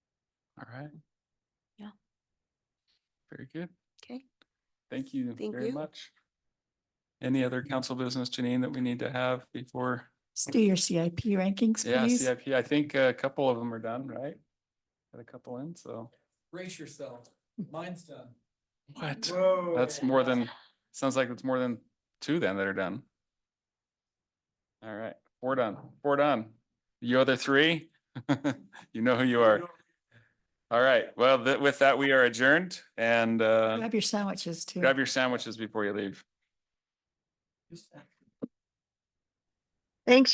All right. Yeah. Very good. Okay. Thank you Thank very you. much. Any other council business, Janine, that we need to have before? Let's do your CIP rankings, Yeah, please. CIP, I think a couple of them are done, right? Got a couple in, so. Brace yourself. Mine's done. What? Whoa. That's more than, sounds like it's more than two then that are done. All right, four done, four done. You other three? You know who you are. All right, well, th- with that, we are adjourned and uh, Grab your sandwiches too. grab your sandwiches before you leave. Just- Thanks,